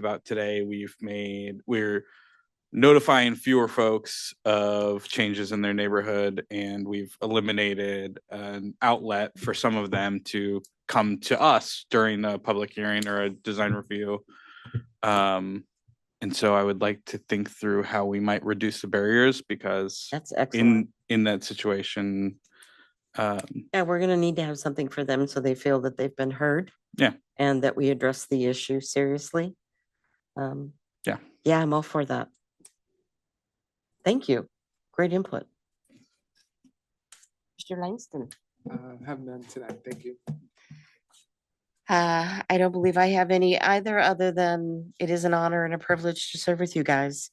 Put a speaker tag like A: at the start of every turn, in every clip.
A: about today, we've made, we're notifying fewer folks of changes in their neighborhood and we've eliminated an outlet for some of them to come to us during a public hearing or a design review. Um, and so I would like to think through how we might reduce the barriers because
B: That's excellent.
A: in, in that situation, um,
B: Yeah, we're gonna need to have something for them so they feel that they've been heard.
A: Yeah.
B: And that we address the issue seriously. Um,
A: Yeah.
B: Yeah, I'm all for that. Thank you. Great input. Mr. Langston.
C: Uh, have none tonight, thank you.
B: Uh, I don't believe I have any either, other than it is an honor and a privilege to serve with you guys.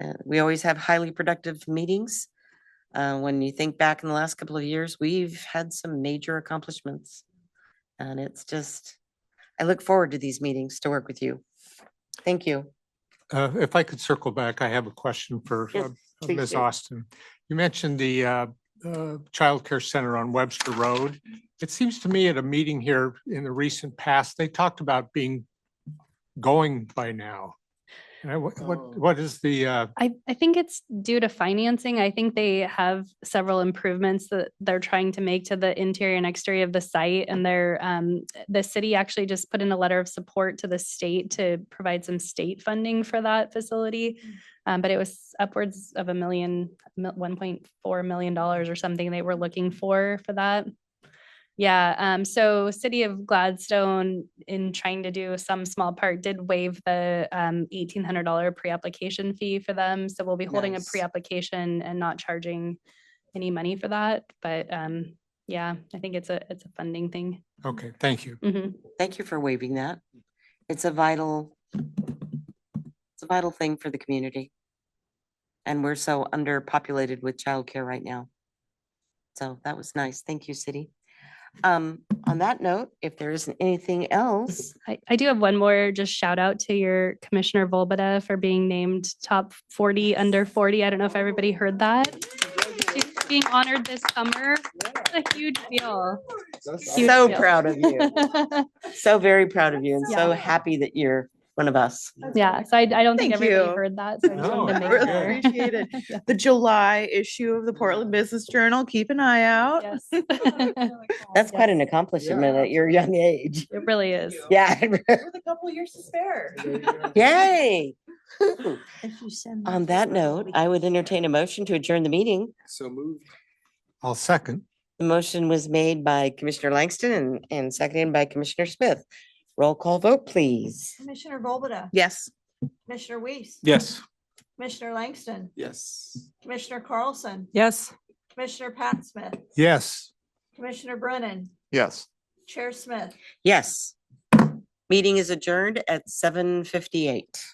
B: Uh, we always have highly productive meetings. Uh, when you think back in the last couple of years, we've had some major accomplishments. And it's just, I look forward to these meetings to work with you. Thank you.
D: Uh, If I could circle back, I have a question for
B: Yes,
D: uh,
B: please
D: Ms.
B: do.
D: Austin. You mentioned the uh, uh, childcare center on Webster Road. It seems to me at a meeting here in the recent past, they talked about being going by now. And I- what-
C: Oh.
D: what, what is the, uh,
E: I, I think it's due to financing. I think they have several improvements that they're trying to make to the interior and exterior of the site. And they're, um, the city actually just put in a letter of support to the state to provide some state funding for that facility. Um, but it was upwards of a million, mil- $1.4 million or something they were looking for, for that. Yeah, um, so City of Gladstone, in trying to do some small part, did waive the um eighteen hundred dollar pre-application fee for them. So we'll be holding a
B: Nice.
E: pre-application and not charging any money for that. But um, yeah, I think it's a, it's a funding thing.
D: okay, thank you.
E: Mhm.
B: Thank you for waiving that. It's a vital, it's a vital thing for the community. And we're so underpopulated with childcare right now. So that was nice. Thank you, city. Um, on that note, if there isn't anything else,
E: I, I do have one more just shout out to your Commissioner Volbada for being named top 40 under 40. I don't know if everybody heard that. She's being honored this summer. It's a huge deal. Huge
B: so
E: deal.
B: proud of you, so very proud of you and so
E: Yeah.
B: happy that you're one of us.
E: Yeah, so I, I don't think
F: Thank
E: everybody
F: you.
E: heard that. So I just wanted to
D: No,
E: make
D: really
E: sure.
F: appreciate it. The July issue of the Portland Business Journal. Keep an eye out.
E: Yes.
B: That's quite an
E: Oh, Yes,
B: accomplishment at your young age.
E: It really is.
B: Yeah.
F: With a couple years to spare.
B: Yay.
F: If you send
B: On that note, I would entertain a motion to adjourn the meeting.
C: So moved.
D: I'll second.
B: The motion was made by Commissioner Langston and, and seconded by Commissioner Smith. Roll call vote, please.
G: Commissioner Volbada,
F: Yes.
G: Commissioner Weiss,
A: yes.
G: Commissioner Langston,
C: Yes.
G: Commissioner Carlson,
F: Yes.
G: Commissioner Pat Smith,
D: Yes.
G: Commissioner Brennan,
D: Yes.
G: Chair Smith.
B: Yes. Meeting is adjourned at seven fifty-eight.